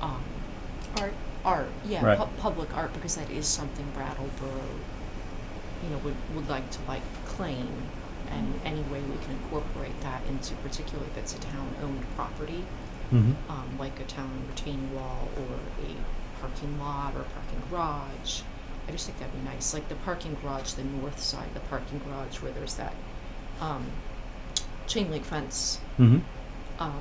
Um, art, yeah, Right. pu- public art, because that is something Brattleboro, you know, would, would like to like claim. And any way we can incorporate that into particularly if it's a town-owned property, Mm-hmm. um, like a town retaining wall or a parking lot or a parking garage. I just think that'd be nice, like the parking garage, the north side, the parking garage where there's that, um, chain link fence Mm-hmm. um,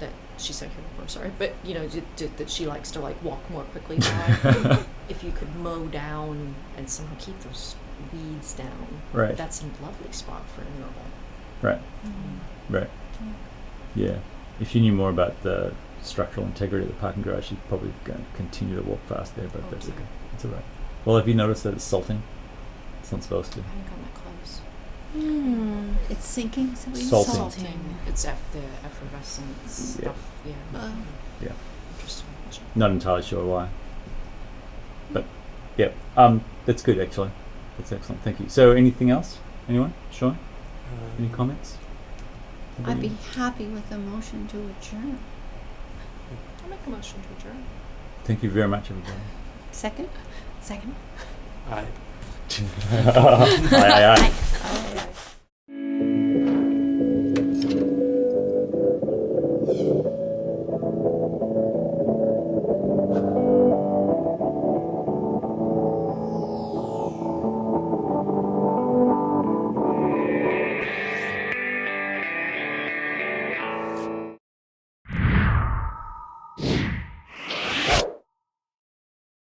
that she said here before, sorry, but you know, d- d- that she likes to like walk more quickly now. if you could mow down and somehow keep those weeds down, Right. that's a lovely spot for a mural. Right. Right. Yeah. If you knew more about the structural integrity of the parking garage, you'd probably go continue to walk past there, but Oh, that's sorry. okay. It's all right. Well, have you noticed that it's salting? It's not supposed to. I haven't gotten that close. Hmm. It's sinking. So Salting. It's af- the effervescence Yeah. stuff. Yeah. Oh. Yeah. Interesting. Interesting. Not entirely sure why. But, yeah. Um, that's good, actually. That's excellent. Thank you. So, anything else? Anyone? Sean? Any comments? I'd Anybody? be happy with a motion to adjourn. I'll make a motion to adjourn. Thank you very much, everybody. Second. Second. aye, aye, aye. Oh.